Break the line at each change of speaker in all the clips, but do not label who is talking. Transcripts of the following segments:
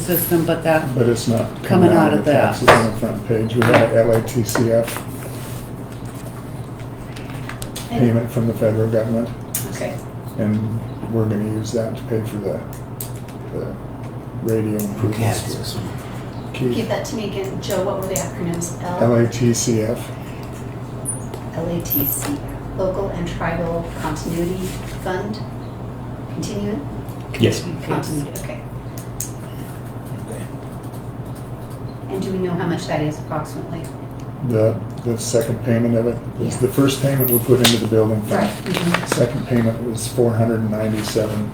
system, but that,
But it's not
Coming
coming
out
out of
of
the
that.
taxes on the front page. We had a LATCF payment from the federal government,
Okay.
and we're gonna use that to pay for the, the radio
Who has
improvements.
this one?
to
Give
Keep
that to me again. Joe, what were the acronyms? L-
LATCF,
LATC, Local and Tribal Continuity Fund? Continuing?
Yes.
Continuity, okay. And do we know how much that is approximately?
the, the second payment of it is the first payment we put into the building fund.
Right. Mm-hmm.
Second payment was four hundred and ninety-seven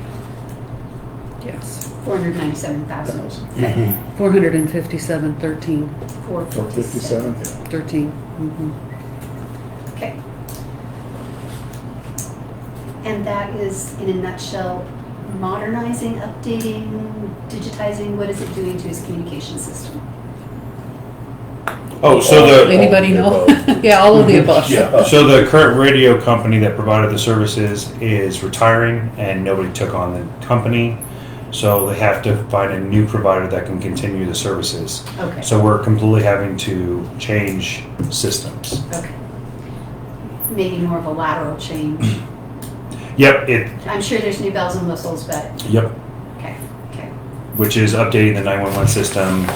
yes,
Four hundred ninety-seven thousand,
thousand,
Mhm.
four hundred and fifty-seven, thirteen,
four
four
fifty-seven.
fifty-seven.
thirteen. mhm.
Okay. And that is, in a nutshell, modernizing, updating, digitizing, what is it doing to his communication system?
Oh, so the
Anybody know? Yeah, all of the above.
yeah, so the current radio company that provided the services is retiring, and nobody took on the company, so they have to find a new provider that can continue the services.
Okay,
So we're completely having to change systems.
okay. Maybe more of a lateral change.
Yep, it.
I'm sure there's new bells and whistles, but,
Yep,
okay, okay,
which is updating the 911 system,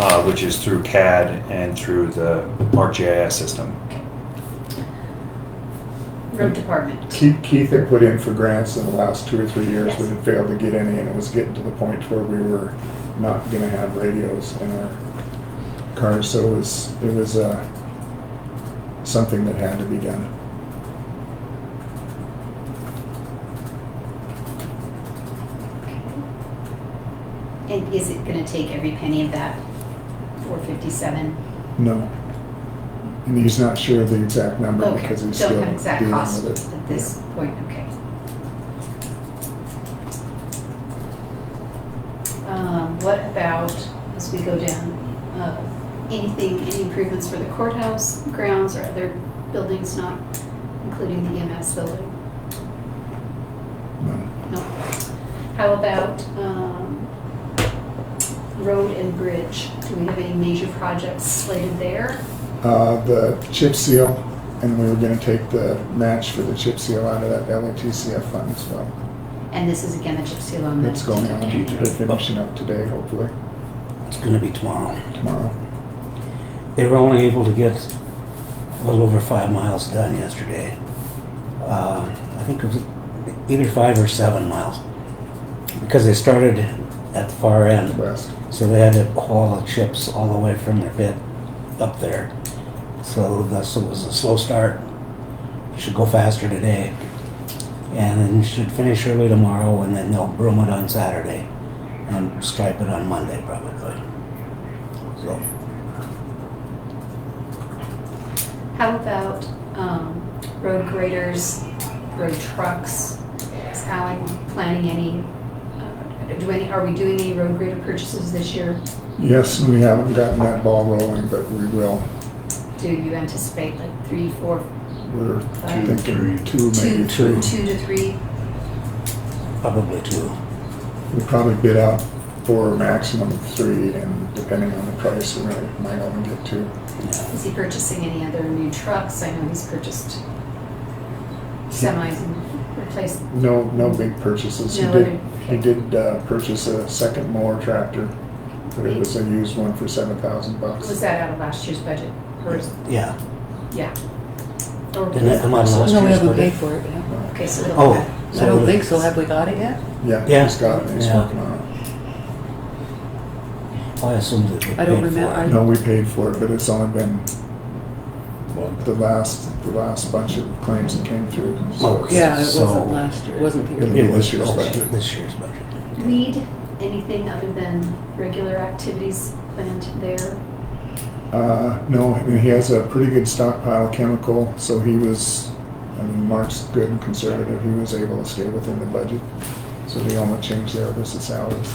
uh, which is through CAD and through the ArcGIS system.
road department,
Keith, Keith had put in for grants in the last two or three years, but had failed to get any, and it was getting to the point where we were not gonna have radios in our cars, so it was, it was, uh, something that had to be done.
and is it gonna take every penny of that four fifty-seven?
No. And he's not sure of the exact number
Okay,
because he's still
Oh, don't
dealing
have
with
exact cost
it.
at this point, okay. Um, what about, as we go down, uh, anything, any improvements for the courthouse grounds or other buildings not including the EMS building?
No.
No. How about um, road and bridge? Do we have any major projects slated there?
Uh, the chip seal, and we were gonna take the match for the chip seal out of that LATCF fund as well.
And this is again the chip seal on the.
It's going on, they're finishing up today, hopefully,
It's gonna be tomorrow.
tomorrow.
They were only able to get a little over five miles done yesterday. Uh, I think it was either five or seven miles. Because they started at the far end.
West.
So they had to haul the chips all the way from their pit up there. So that's, it was a slow start. Should go faster today. And then should finish early tomorrow and then they'll broom it on Saturday. And stripe it on Monday probably. So,
How about um, road graders, road trucks? Is Alan planning any, uh, do any, are we doing any road grader purchases this year?
Yes, we haven't gotten that ball rolling, but we will.
Do you anticipate like three, four,
We're
Five.
thinking two,
two,
maybe
two
three.
to three?
probably two.
We probably bid out four, maximum three, and depending on the price, we might might only get two.
Yeah.
Is he purchasing any other new trucks? I know he's purchased semis and replaced.
No, no big purchases. He
No
did,
other-
he did uh, purchase a second mower tractor, but it was a used one for seven thousand
Was
bucks.
that out of last year's budget? Or is-
Yeah.
yeah. Or-
Didn't that come out of last
No, we
year's
haven't
budget?
paid for it yet.
Okay, so it'll.
Oh.
I don't think so. Have we got it yet?
Uh, Yeah,
Yeah.
he's got it, he's
Yeah.
working on
I assumed that they
I don't
paid for
it.
remember.
No, we paid for it, but it's only been the last, the last bunch of claims that came through. so-
Okay.
Yeah, it
So-
wasn't last year, it wasn't the year.
Yeah.
It
This
was
year's budget.
Oh, this year's budget.
Lead, anything other than regular activities planned there?
Uh, no, I mean, he has a pretty good stockpile of chemical, so he was, I mean, Mark's good and conservative. He was able to stay within the budget. So the only change there was the salaries.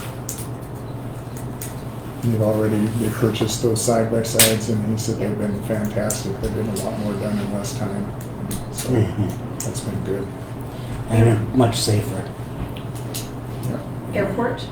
They've already, they purchased those side by sides and he said they've been fantastic. They've been a lot more done in less time. So
Mhm.
that's been good.
And they're much safer.
Yeah.
Airport,